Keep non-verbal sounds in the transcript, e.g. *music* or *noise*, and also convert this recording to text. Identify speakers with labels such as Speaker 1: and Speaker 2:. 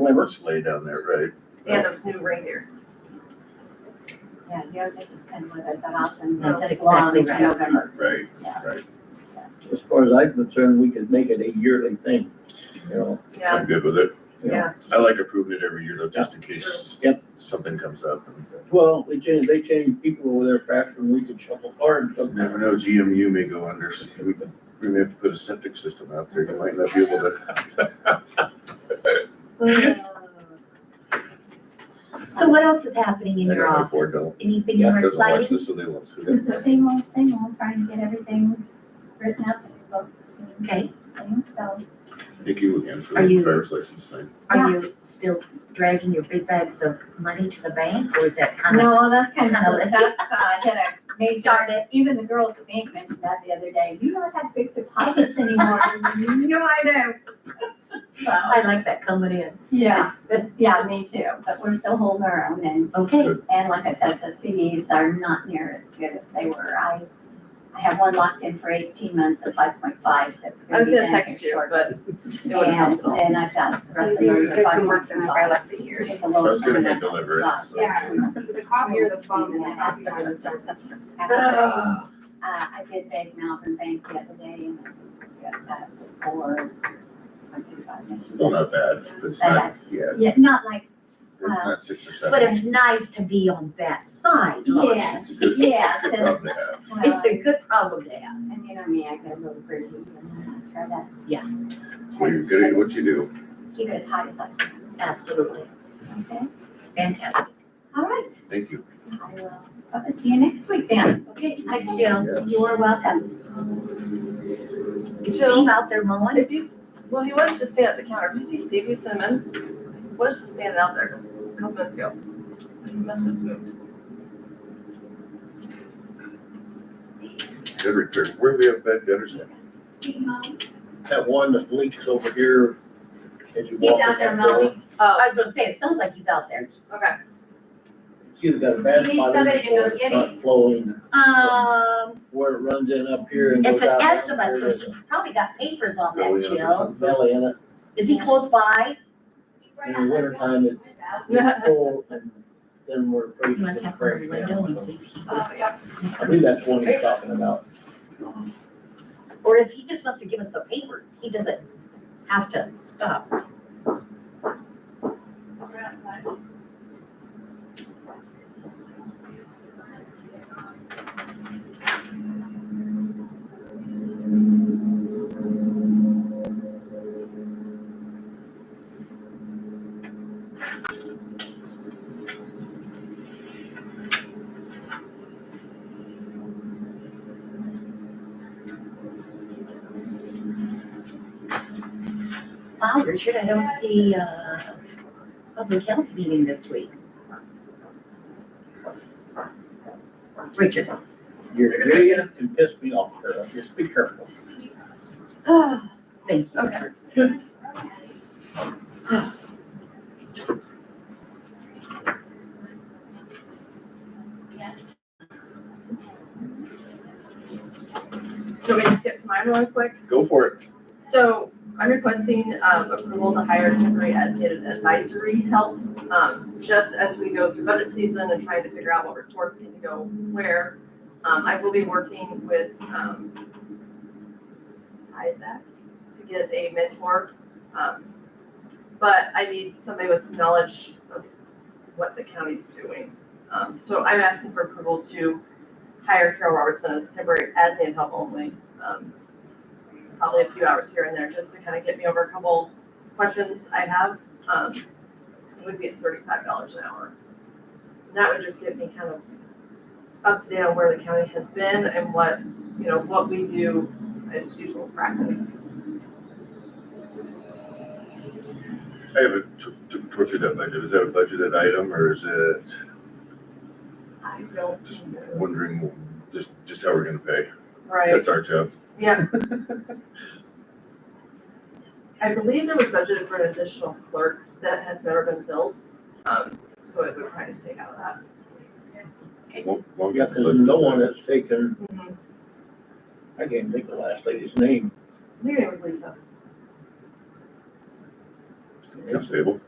Speaker 1: liver
Speaker 2: Let's lay down there, right?
Speaker 3: and a new reindeer.
Speaker 4: Yeah, you have to just kind of let that out and
Speaker 3: That's
Speaker 4: let it belong
Speaker 5: exactly
Speaker 4: to
Speaker 5: right.
Speaker 4: November.
Speaker 2: Right,
Speaker 4: Yeah.
Speaker 2: right.
Speaker 1: as far as I'm concerned, we could make it a yearly thing, you know?
Speaker 3: Yeah,
Speaker 2: I'm good with it.
Speaker 3: yeah,
Speaker 2: I like approving it every year though, just in case
Speaker 1: Yep.
Speaker 2: something comes up. and-
Speaker 1: Well, they change, they change people over there faster than we could shuffle cards. so-
Speaker 2: Never know, GMU may go under, so we we may have to put a septic system out there, you might not be able to.
Speaker 5: So what else is happening in
Speaker 2: I
Speaker 5: your
Speaker 2: don't know, Ford
Speaker 5: office?
Speaker 2: don't.
Speaker 5: Anything
Speaker 1: *laughs* Yeah,
Speaker 5: more
Speaker 2: Doesn't watch
Speaker 5: exciting?
Speaker 2: this, so they won't see
Speaker 4: Just the
Speaker 2: that.
Speaker 4: same old, same old, trying to get everything written up in books and
Speaker 5: Okay,
Speaker 4: things, so.
Speaker 2: Thank you again for
Speaker 5: Are
Speaker 2: the
Speaker 5: you-
Speaker 2: driver's license thing.
Speaker 5: are you still dragging your big bags of money to the bank or is that kind of?
Speaker 4: No, that's kind
Speaker 5: kinda
Speaker 4: of,
Speaker 5: lit.
Speaker 4: that's, uh, I had a
Speaker 5: Uh-huh. Darn
Speaker 4: major, even the girl at the bank mentioned that the other day, you don't have big deposits anymore. No, I know. *laughs*
Speaker 5: *laughs*
Speaker 4: So,
Speaker 5: I like that coming in.
Speaker 4: yeah, but, yeah, me too, but we're still holding our own and
Speaker 5: Okay,
Speaker 4: And like I said, the CDs are not near as good as they were. I, I have one locked in for eighteen months at five point five that's
Speaker 3: I
Speaker 4: gonna
Speaker 3: was
Speaker 4: be
Speaker 3: gonna
Speaker 4: down
Speaker 3: text
Speaker 4: here
Speaker 3: you,
Speaker 4: short.
Speaker 3: but it
Speaker 4: And,
Speaker 3: wouldn't help at all.
Speaker 4: and I've got the rest of
Speaker 6: Maybe
Speaker 4: them
Speaker 6: you
Speaker 3: There's
Speaker 4: at
Speaker 3: some work
Speaker 4: 5.5.
Speaker 3: done if I left it here.
Speaker 4: Take
Speaker 2: I
Speaker 4: the lowest
Speaker 2: was gonna
Speaker 4: one
Speaker 2: hand
Speaker 4: I've
Speaker 2: deliver it,
Speaker 4: got in
Speaker 2: so.
Speaker 4: stock.
Speaker 6: Yeah, so the coffee or the phone and the coffee I was served.
Speaker 4: Uh, I did beg Malvern Bank the other day and I got that for one two five minutes.
Speaker 2: Still not bad, but it's
Speaker 4: But
Speaker 2: not,
Speaker 4: that's-
Speaker 2: yeah,
Speaker 4: Yeah, not like,
Speaker 2: it's not six or
Speaker 5: but
Speaker 2: seven.
Speaker 5: it's nice to be on that side. Laura.
Speaker 4: yeah,
Speaker 2: It's a good,
Speaker 4: yeah,
Speaker 2: *laughs* good
Speaker 4: so-
Speaker 2: problem to have.
Speaker 4: well,
Speaker 5: It's a good problem to have.
Speaker 4: and you know me, I get a little greedy and I try to
Speaker 5: Yeah,
Speaker 2: So you're good at what you do.
Speaker 4: keep it as hot as I can. so,
Speaker 5: absolutely.
Speaker 4: Okay,
Speaker 5: Fantastic.
Speaker 4: all right.
Speaker 2: Thank you.
Speaker 4: I will. I'll see you next week then.
Speaker 5: Okay, thanks, Jill.
Speaker 2: Yes.
Speaker 4: You are welcome.
Speaker 5: Is Steve out there mowing?
Speaker 3: If you, well, he was just standing at the counter. If you see Steve, you send him in. He was just standing out there just a couple minutes ago. He must have moved.
Speaker 2: Good repair. Where do we have bad gutters at?
Speaker 1: That one that leaks over here as you
Speaker 4: He's
Speaker 1: walk.
Speaker 4: out
Speaker 1: in
Speaker 4: there
Speaker 1: that door.
Speaker 4: mowing.
Speaker 5: I
Speaker 3: Oh,
Speaker 5: was gonna say, it sounds like he's out there.
Speaker 3: okay.
Speaker 1: It's either got a bad
Speaker 4: You need
Speaker 1: spot in
Speaker 4: somebody
Speaker 1: it
Speaker 4: to go
Speaker 1: or it's
Speaker 4: get
Speaker 1: not flowing
Speaker 5: Um,
Speaker 1: where it runs in up here and goes
Speaker 5: it's an
Speaker 1: out. down
Speaker 5: estimate,
Speaker 1: there, Oh,
Speaker 5: so he's probably got papers on
Speaker 2: Going
Speaker 5: that,
Speaker 2: up or
Speaker 5: Jill.
Speaker 2: something?
Speaker 1: Belly in it.
Speaker 5: Is he close by?
Speaker 1: In the
Speaker 4: *laughs*
Speaker 1: wintertime, it gets cold and then we're
Speaker 5: You
Speaker 1: freezing.
Speaker 5: wanna tap on the window and see if he would,
Speaker 3: Oh, yeah. *sighs*
Speaker 1: I believe that's one he's talking about.
Speaker 5: or if he just wants to give us the paper, he doesn't have to stop. Wow, Richard, I don't see a public health meeting this week. Richard,
Speaker 1: Your idiot can piss me off, Carol. Just be careful.
Speaker 5: thank you.
Speaker 3: Okay.
Speaker 5: Richard.
Speaker 3: So we can skip to mine really quick.
Speaker 2: Go for it.
Speaker 3: So I'm requesting um approval to hire temporary as needed advisory help. Um, just as we go through budget season and trying to figure out what reports need to go where. Um, I will be working with um Isaac to get a mentor. Um, but I need somebody with some knowledge of what the county's doing. Um, so I'm asking for approval to hire Carol Robertson as temporary as needed help only. Um, probably a few hours here and there just to kind of get me over a couple questions I have. Um, it would be at thirty-five dollars an hour. And That would just get me kind of up to date on where the county has been and what, you know, what we do as usual practice.
Speaker 2: I have a, to, to go through that budget, is that a budgeted item or is it
Speaker 3: I don't.
Speaker 2: just wondering, just, just how we're gonna pay?
Speaker 3: Right,
Speaker 2: That's our job.
Speaker 3: yeah. I believe there was budgeted for an additional clerk that has never been filled, um, so it would probably just take out of that.
Speaker 2: Won't, won't
Speaker 1: Yeah,
Speaker 2: get the
Speaker 1: 'cause no one
Speaker 2: budget.
Speaker 1: has taken,
Speaker 3: Mhm.
Speaker 1: I can't think of the last lady's name.
Speaker 3: Maybe it was Lisa.
Speaker 2: Comes table.